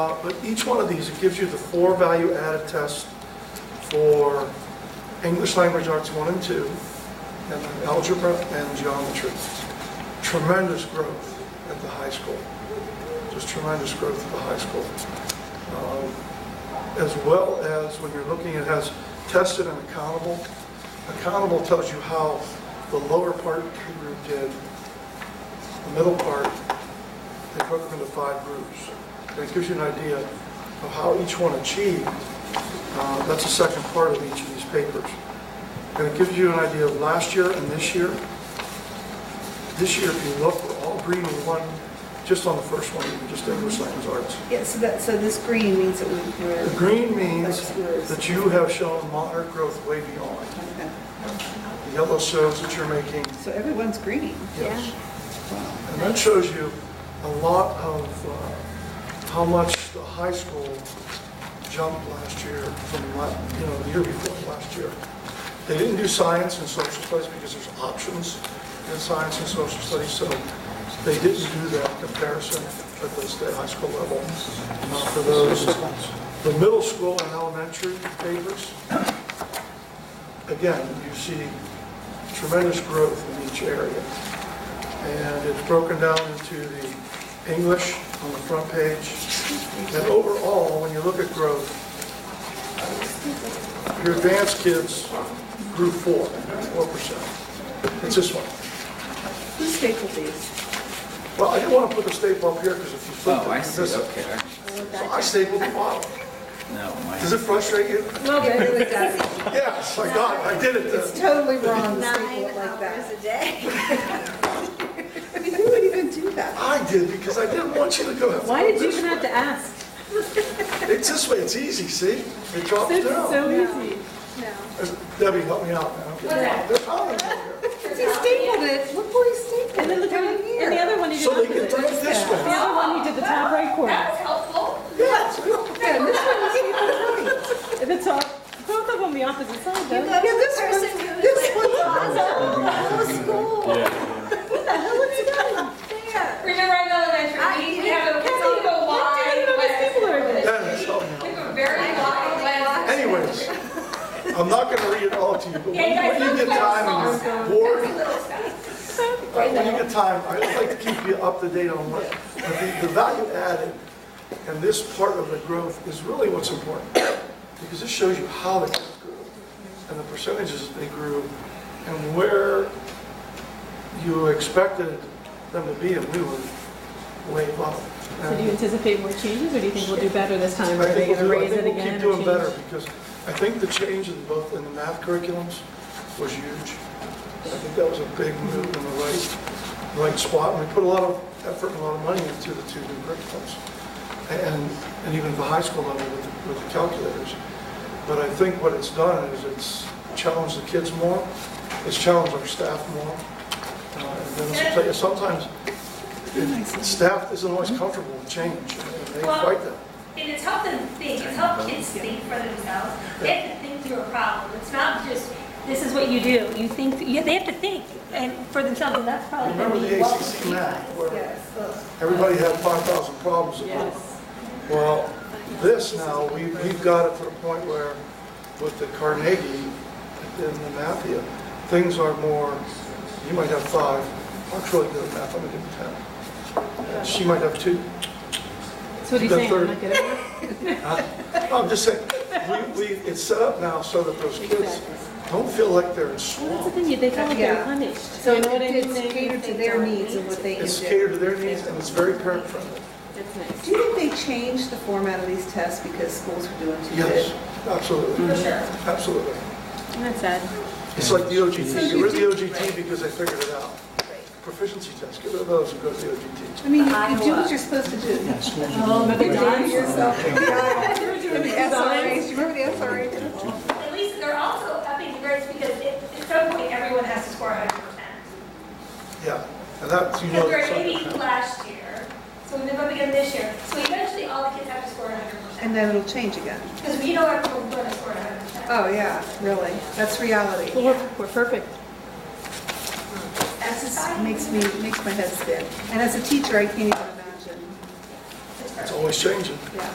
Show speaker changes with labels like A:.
A: Uh, But each one of these, it gives you the four value-added tests for English Language Arts 1 and 2, and then algebra and geometry. Tremendous growth at the high school, just tremendous growth at the high school. Um, As well as when you're looking, it has tested and accountable. Accountable tells you how the lower part of the group did, the middle part, they broke them into five groups. And it gives you an idea of how each one achieved. Uh, That's the second part of each of these papers. And it gives you an idea of last year and this year. This year, if you look, we're all green with one, just on the first one, even just English language arts.
B: Yeah, so that, so this green means that we- we're.
A: The green means that you have shown moderate growth way beyond.
B: Okay.
A: The yellow shows that you're making
B: So everyone's green.
A: Yes. And that shows you a lot of uh, how much the high school jumped last year from, la- you know, the year before last year. They didn't do science and social studies because there's options in science and social studies, so they didn't do that comparison at the state high school level. Not for those, the middle school and elementary papers, again, you see tremendous growth in each area. And it's broken down into the English on the front page. And overall, when you look at growth, your advanced kids grew four, four percent. It's this one.
B: Who stapled these?
A: Well, I didn't want to put the staple up here because if you flip it.
C: Oh, I
A: you
C: see,
A: miss it.
C: okay.
A: So I stapled the bottom.
C: No,
A: Does
C: my,
A: it frustrate you?
B: Well, it really does.
A: Yes, I got it, I did it.
B: It's
A: then.
B: totally wrong to
D: Nine
B: staple it like
D: hours
B: that.
D: a day.
B: I mean, who would even do that?
A: I did because I didn't want you to go.
E: Why did you even have to ask?
A: It's this way, it's easy, see? It drops
E: This is
A: down.
E: so easy.
A: Debbie, help me out now. They're piling on here.
B: He stapled it, look where he stapled it.
E: And then look how,
B: Down here.
E: and the other one you did
A: So they can
E: opposite.
A: throw it this
E: The
A: way.
E: other one you did the top right corner.
B: Yeah, and this one is even right.
E: If it's all, both of them the opposite side
D: You go
E: though.
D: to
B: Yeah,
D: the
B: this
D: person
B: one-
D: who like
B: this one-
D: draws the whole school.
E: What the hell is he doing?
D: There.
F: Remember in elementary, we- we have a, it's a little wide web.
A: Dennis, help me
F: We
A: out.
F: have a very wide web.
A: Anyways, I'm not gonna read it all to you, but when
F: Yeah, you guys
A: when you
F: look
A: get time
F: like
A: and you're bored, uh, when you get time, I would like to keep you up to date on what, but the, the value added and this part of the growth is really what's important. Because this shows you how they grew and the percentages they grew and where you expected them to be and we were way up.
E: So do you anticipate more changes or do you think we'll do better this time? Or
A: I
E: Are they
A: think
E: gonna
A: we'll do- I
E: raise
A: think we'll
E: it
A: keep
E: again or
A: doing better,
E: change?
A: because I think the change in both, in the math curriculums was huge. I think that was a big move in the right, right spot, and we put a lot of effort and a lot of money into the two new curriculums. And, and even at the high school level with, the- with the calculators. But I think what it's done is it's challenged the kids more, it's challenged our staff more. Uh, And then it's- sometimes, it- staff isn't always comfortable with change, and they
F: Well,
A: fight that.
F: And it's helped them think, it's helped kids think for themselves. They have to think through a problem. It's not just, this is what you do. You think, yeah, they have to think and for themselves, and that's probably.
A: Remember the
F: what
A: ACC
F: we-
A: map, where
B: Yes, look.
A: everybody had 5,000 problems?
E: Yes.
A: Well, this now, we- we've got it to the point where with the Carnegie and the Mathia, things are more, you might have five, I'm really good at math, I'm gonna give you 10. And She might have two.
E: So what are you
A: The
E: saying? I'm
A: third-
E: not good at it?
A: I'm just saying, we, we, it's set up now so that those kids don't feel like they're in
E: Well, that's the
A: swamp.
E: thing, you- they feel like
B: Yeah.
E: they're punished.
B: So
E: You know what I
B: it
E: mean?
B: did
E: They-
B: cater
E: they
B: to their
E: don't
B: needs and
E: need
B: what
E: to.
B: they can do.
A: It's catered to their needs and it's very parent friendly.
E: That's nice.
B: Do you think they changed the format of these tests because schools were doing too good?
A: Yes, absolutely. For sure. Absolutely.
E: Isn't that sad?
A: It's like the OGT, you rid the OGT because they figured it out. Proficiency tests, get rid of those and go to the OGT.
B: I mean, you do what you're supposed to do.
E: Oh, but they're
B: Design
E: dying.
B: yourself. The SRAs, you remember the SRA?
F: At least they're also upping the grades because it- at some point, everyone has to score 100%.
A: Yeah, and that, you know.
F: Because we're
A: that's
F: at
A: not gonna
F: 80
A: happen.
F: last year, so we move up again this year. So eventually, all the kids have to score 100%.
B: And then it'll change again.
F: Because we know everyone's going to score 100%.
B: Oh, yeah, really, that's reality.
E: Well, we're, we're perfect.
B: That just makes me, makes my head spin. And as a teacher, I can't even imagine,
A: It's always changing.
B: yeah.